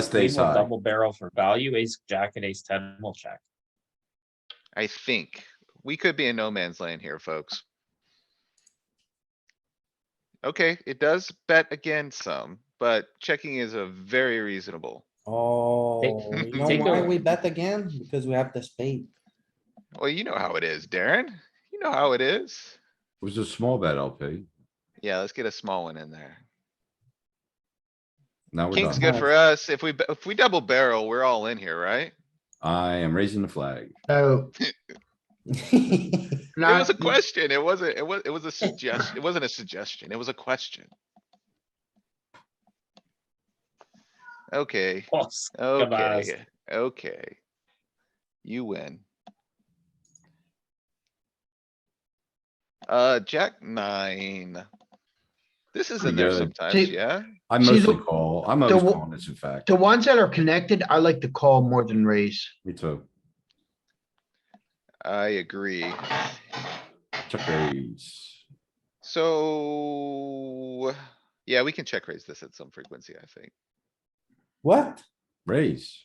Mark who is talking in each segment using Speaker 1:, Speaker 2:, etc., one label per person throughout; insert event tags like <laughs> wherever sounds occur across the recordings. Speaker 1: Just
Speaker 2: We
Speaker 1: ace
Speaker 2: will
Speaker 1: high.
Speaker 2: double barrel for value, ace, jack and ace ten will check. <laughs>
Speaker 3: I think. We could be in no man's land here, folks. Okay, it does bet again some, but checking is a very reasonable. <laughs>
Speaker 4: Oh, you know
Speaker 3: take
Speaker 4: why
Speaker 3: the-
Speaker 4: we bet again? Because we have the spade.
Speaker 3: Well, you know how it is, Darren. You know how it is.
Speaker 1: It was a small bet LP.
Speaker 3: Yeah, let's get a small one in there.
Speaker 1: Now we're
Speaker 3: King's
Speaker 1: done.
Speaker 3: good for us. If we, if we double barrel, we're all in here, right?
Speaker 1: I am raising the flag.
Speaker 4: <laughs>
Speaker 5: So.
Speaker 3: It was a question. It wasn't, it was, it was a suggestion. It wasn't a suggestion. It was a question. Okay.
Speaker 2: Plus, Goodbyes.
Speaker 3: Okay, okay. You win. Uh, jack nine. This is
Speaker 1: Pretty
Speaker 3: in there
Speaker 1: good.
Speaker 3: sometimes,
Speaker 5: See-
Speaker 3: yeah?
Speaker 1: I
Speaker 5: See,
Speaker 1: mostly
Speaker 5: the-
Speaker 1: call. I'm always
Speaker 5: the-
Speaker 1: calling this in fact.
Speaker 5: The ones that are connected, I like to call more than raise.
Speaker 1: Me too.
Speaker 3: I agree.
Speaker 1: Check raise.
Speaker 3: So, yeah, we can check raise this at some frequency, I think.
Speaker 4: What?
Speaker 1: Raise.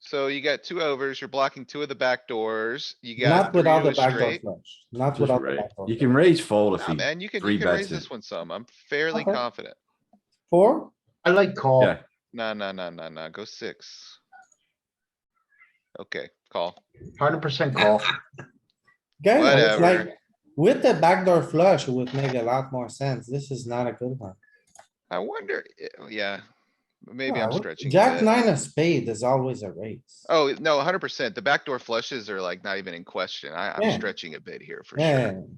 Speaker 3: So you got two overs, you're blocking two of the back doors, you got
Speaker 4: Not
Speaker 3: three
Speaker 4: without
Speaker 3: of
Speaker 4: the
Speaker 3: a
Speaker 4: backdoor
Speaker 3: straight.
Speaker 4: flush, not
Speaker 1: Just
Speaker 4: without the
Speaker 1: raise.
Speaker 4: backdoor.
Speaker 1: You
Speaker 4: flush.
Speaker 1: can raise fold if
Speaker 3: Nah,
Speaker 1: he,
Speaker 3: man, you can,
Speaker 1: three
Speaker 3: you can raise
Speaker 1: bets it.
Speaker 3: this one some. I'm fairly
Speaker 4: Okay.
Speaker 3: confident.
Speaker 4: Four?
Speaker 5: I like call.
Speaker 1: yeah,
Speaker 3: Nah, nah, nah, nah, nah, go six. Okay, call.
Speaker 5: Hundred percent call.
Speaker 4: Guys, it's
Speaker 3: Whatever.
Speaker 4: like, with the backdoor flush, it would make a lot more sense. This is not a good one.
Speaker 3: I wonder, i- yeah, maybe
Speaker 4: Yeah,
Speaker 3: I'm
Speaker 4: what-
Speaker 3: stretching. a
Speaker 4: Jack
Speaker 3: bit.
Speaker 4: nine of spade is always a raise.
Speaker 3: Oh, no, hundred percent. The backdoor flushes are like not even in question. I, I'm
Speaker 4: Yeah.
Speaker 3: stretching a bit here for
Speaker 4: Yeah.
Speaker 3: sure.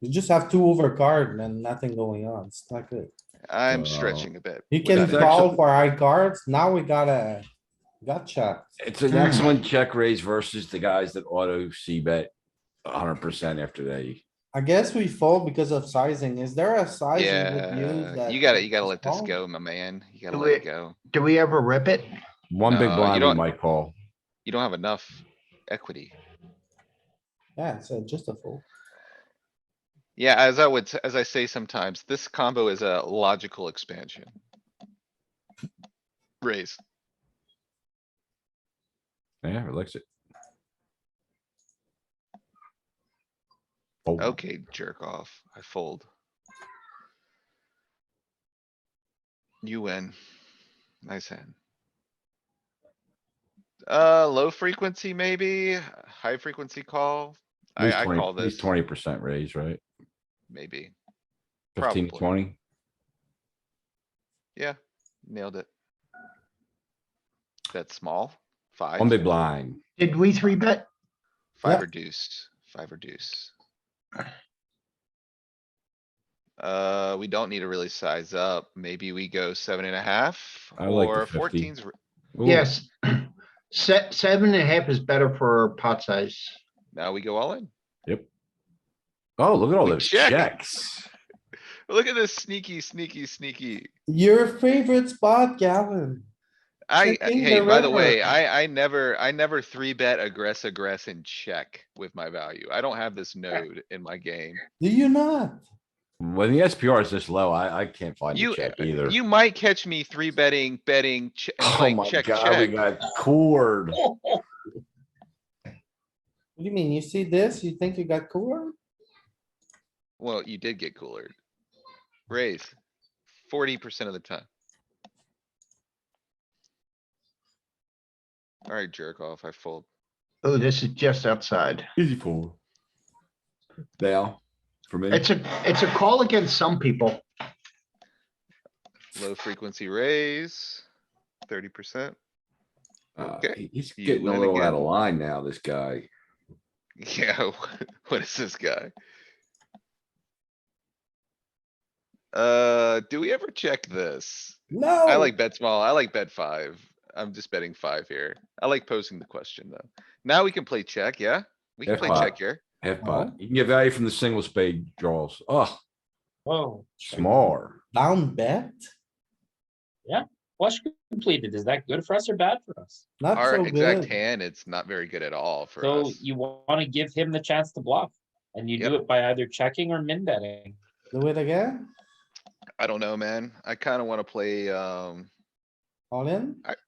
Speaker 4: You just have two over card and nothing going on. It's not good.
Speaker 3: I'm
Speaker 1: Wow.
Speaker 3: stretching a bit.
Speaker 4: You can
Speaker 1: Without a-
Speaker 4: call for high cards. Now we got a gotcha.
Speaker 1: it's an excellent check raise versus the guys that auto C bet hundred percent after they.
Speaker 4: I guess we fold because of sizing. Is there a size? you would use
Speaker 3: Yeah,
Speaker 4: that
Speaker 3: you gotta, you gotta let this
Speaker 4: small?
Speaker 3: go, my man. You gotta
Speaker 5: Do
Speaker 3: let it
Speaker 5: it.
Speaker 3: go.
Speaker 5: Do we ever rip it?
Speaker 1: One big
Speaker 3: No, you
Speaker 1: blind we
Speaker 3: don't-
Speaker 1: might call.
Speaker 3: You don't have enough equity.
Speaker 4: Yeah, it's uh, just a fold.
Speaker 3: Yeah, as I would, s- as I say sometimes, this combo is a logical expansion. Raise.
Speaker 1: Yeah, relax it. Fold.
Speaker 3: Okay, jerk off. I fold. You win. Nice hand. Uh, low frequency maybe, high frequency call. I, I call this
Speaker 1: Twenty percent raise, right?
Speaker 3: maybe.
Speaker 1: Fifteen,
Speaker 3: Probably.
Speaker 1: twenty?
Speaker 3: Yeah, nailed it. That's small, five,
Speaker 1: One big blind.
Speaker 5: Did we three bet?
Speaker 3: five
Speaker 4: Yeah.
Speaker 3: reduced, five reduced. Uh, we don't need to really size up. Maybe we go seven and a half
Speaker 1: I like the
Speaker 3: or
Speaker 1: 50.
Speaker 3: fourteens.
Speaker 1: Ooh,
Speaker 5: Yes. <clears throat> Se- seven and a half is better for pot size.
Speaker 3: Now we go all in.
Speaker 1: Oh, look at all
Speaker 3: We
Speaker 1: those
Speaker 3: check.
Speaker 1: checks.
Speaker 3: Look at this sneaky, sneaky, sneaky.
Speaker 4: Your favorite spot, Gavin.
Speaker 3: I,
Speaker 4: Checking
Speaker 3: hey,
Speaker 4: the
Speaker 3: by the way,
Speaker 4: river.
Speaker 3: I, I never, I never three bet aggress, aggress and check with my value. I don't have this node in my game.
Speaker 4: Do you not?
Speaker 1: When the SPR is this low, I, I can't find
Speaker 3: You- uh,
Speaker 1: a check either. <laughs>
Speaker 3: You might catch me three betting, betting, che- and
Speaker 1: Oh
Speaker 3: playing
Speaker 1: my
Speaker 3: check,
Speaker 1: god, we
Speaker 3: check.
Speaker 1: got cord.
Speaker 4: What do you mean? You see this? You think you got cooler?
Speaker 3: Well, you did get cooler. Raise forty percent of the time. Alright, jerk off, I fold.
Speaker 5: Oh, this is just outside.
Speaker 1: Easy fool. Now, for me,
Speaker 5: It's a, it's a call against some people.
Speaker 3: Low frequency raise, thirty percent. <laughs>
Speaker 1: uh,
Speaker 3: okay.
Speaker 1: he- he's
Speaker 3: You
Speaker 1: getting a
Speaker 3: win
Speaker 1: little out of
Speaker 3: again.
Speaker 1: line now, this guy.
Speaker 3: Yeah, <laughs> what is this guy? Uh, do we ever check this?
Speaker 4: No.
Speaker 1: Oh.
Speaker 3: I like bet small. I like bet five. I'm just betting five here. I like posing the question though. Now we can play check, yeah? We can
Speaker 1: F
Speaker 3: play
Speaker 1: five.
Speaker 3: check here.
Speaker 1: Half pot. You can get value from the single spade draws. Oh,
Speaker 2: Whoa,
Speaker 1: smaller.
Speaker 4: Down bet?
Speaker 2: flush completed. Is that good for us or bad for us?
Speaker 4: Not
Speaker 3: Our
Speaker 4: so
Speaker 3: exact
Speaker 4: good.
Speaker 3: hand, it's not very good at all for
Speaker 2: So
Speaker 3: us.
Speaker 2: you wanna give him the chance to bluff. And you do
Speaker 3: Yep.
Speaker 2: it by either checking or min betting.
Speaker 4: Do it again?
Speaker 3: I don't know, man. I kinda wanna play, um,
Speaker 4: All in?